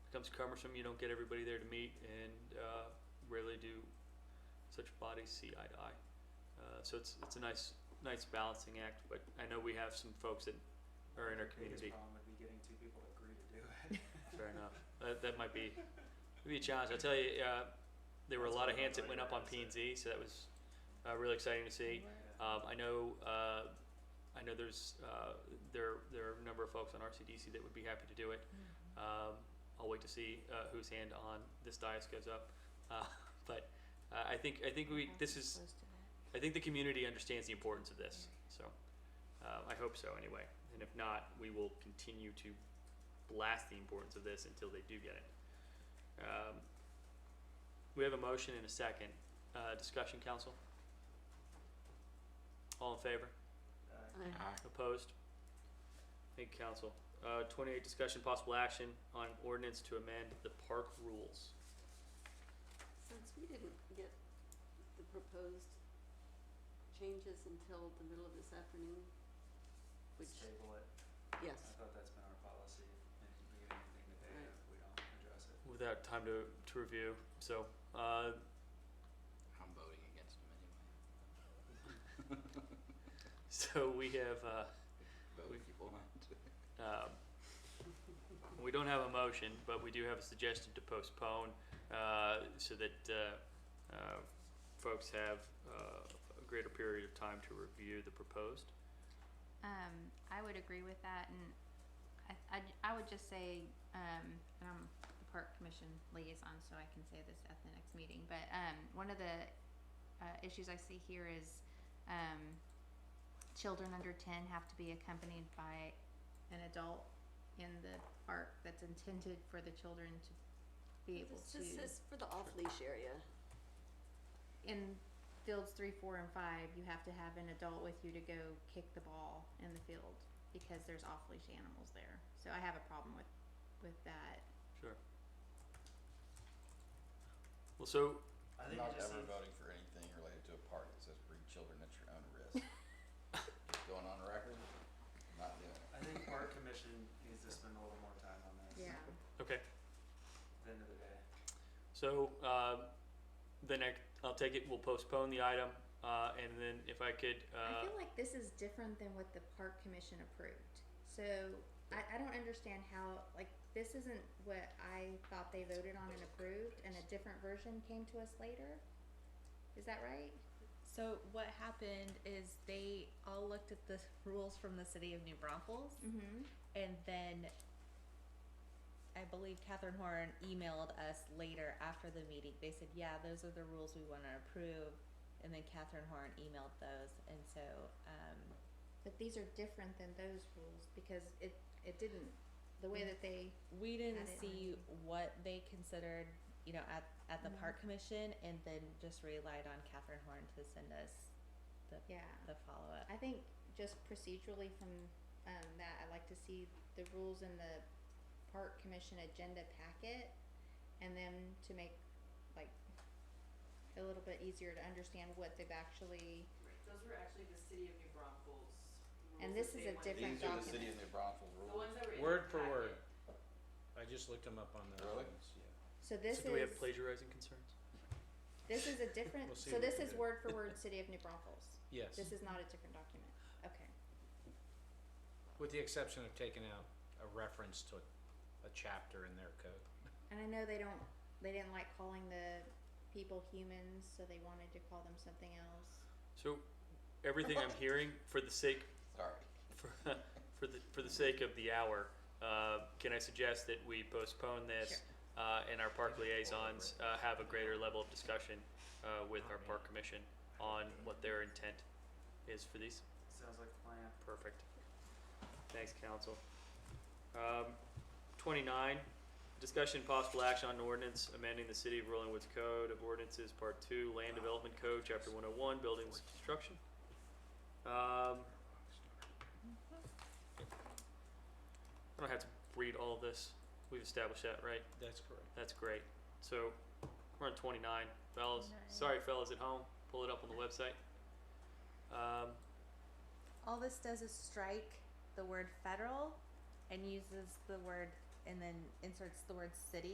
becomes cumbersome. You don't get everybody there to meet and uh, rarely do such bodies see eye to eye. Uh, So it's, it's a nice, nice balancing act, but I know we have some folks that are in our Biggest community. problem would be getting two people to agree to do it. Fair enough. That, that might be, be a challenge. I tell you, uh, there were a lot of hands that went up on P and Z, so that was uh, really exciting to see. Um, I know, uh, I know there's, uh, there, there are a number of folks on RCDC that would be happy to do it. Um, I'll wait to see, uh, whose hand on this dais goes up. Uh, but, uh, I think, I think we, this is, I think the community understands the importance of this, so, uh, I hope so anyway. And if not, we will continue to blast the importance of this until they do get it. Um, We have a motion and a second, uh, discussion, council? All in favor? Uh, Opposed? Thank you, council. Uh, twenty-eight, discussion possible action on ordinance to amend the park rules. Since we didn't get the proposed changes until the middle of this afternoon, which, Let's table it. I yes, thought that's been our policy. If we get anything today, Right. if uh, we don't address it. Without time to, to review, so, uh, I'm voting against him anyway. so we have, uh, Vote if you want. um, we don't have a motion, but we do have a suggestion to postpone, uh, so that, uh, uh, folks have, uh, a greater period of time to review the proposed. Um, I would agree with that, and I, I, I would just say, um, and I'm the park commission liaison, so I can say this at the next meeting. But um, one of the uh, issues I see here is um, children under ten have to be accompanied by an adult in the park that's intended for the children to be able this to this is for the off-leash area. in fields three, four, and five, you have to have an adult with you to go kick the ball in the field because there's off leash animals there. So I have a problem with with that. Sure. Well, so, I I'm think it not just ever needs- voting for anything related to a park that says bring children at your own risk. Just Going on record, not doing it. I think park commission needs to spend a little more time on this. okay, At the end of the day. So, um, then I, I'll take it, we'll postpone the item, uh, and then if I could, uh, I feel like this is different than what the park commission approved. So I, I don't understand how like this isn't what I thought they voted on and approved and a different version came to us later. Is that right? So what happened is they all looked at the rules from the city of New Braunfels, Mm-hmm. and then I believe Catherine Horn emailed us later after the meeting. They said, "Yeah, those are the rules we want to approve," and then Catherine Horn emailed those, and so um, But these are different than those rules because it it didn't the way that they we didn't Add it see on. what they considered, you know, at at the Mhm. park commission, and then just relied on Catherine Horn to send us the yeah. the follow up. I think just procedurally from um, that, I'd like to see the rules in the park commission agenda packet and then to make like a little bit easier to understand what they've actually, Right, Those were actually the city of New Braunfels. rules And this that is they a wanted. different These are the city document. of New Braunfels The rules. ones that were in the Word for packet. word. I just looked them up on the. Really? so this so do we have is, plagiarizing concerns? this is a different, We'll see so what this we is do. word for word, city of New Braunfels. Yes, This is not a different document, okay. with the exception of taking out a reference to a chapter in their code. And I know they don't, they didn't like calling the people humans, so they wanted to call them something else. So, everything I'm hearing, for the sake, Sorry. for, for the, for the sake of the hour, uh, can I suggest that we postpone this? Uh, and our park liaisons, uh, have a greater level of discussion, uh, with our park commission on what their intent is for these? Sounds like a plan. Perfect. Thanks, council. Um, twenty-nine, discussion possible action on ordinance amending the City of Rolling Woods Code of Ordinances, Part Two, Land Development Code, Chapter one oh one, Buildings and Construction. Um, I don't have to read all of this. We've established that, right? That's correct. That's great. So, we're on twenty-nine, fellas. Sorry, fellas at home, pull it up on the website. Um, All this does is strike the word federal and uses the word and then inserts the word city